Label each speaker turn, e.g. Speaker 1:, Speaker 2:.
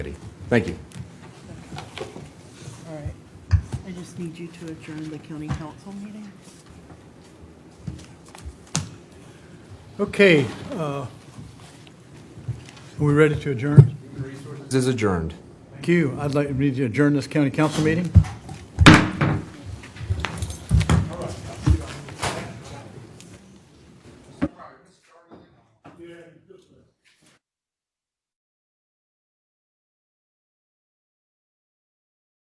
Speaker 1: committee. Thank you.
Speaker 2: All right. I just need you to adjourn the county council meeting.
Speaker 3: Okay, uh, are we ready to adjourn?
Speaker 1: This is adjourned.
Speaker 3: Thank you. I'd like me to adjourn this county council meeting.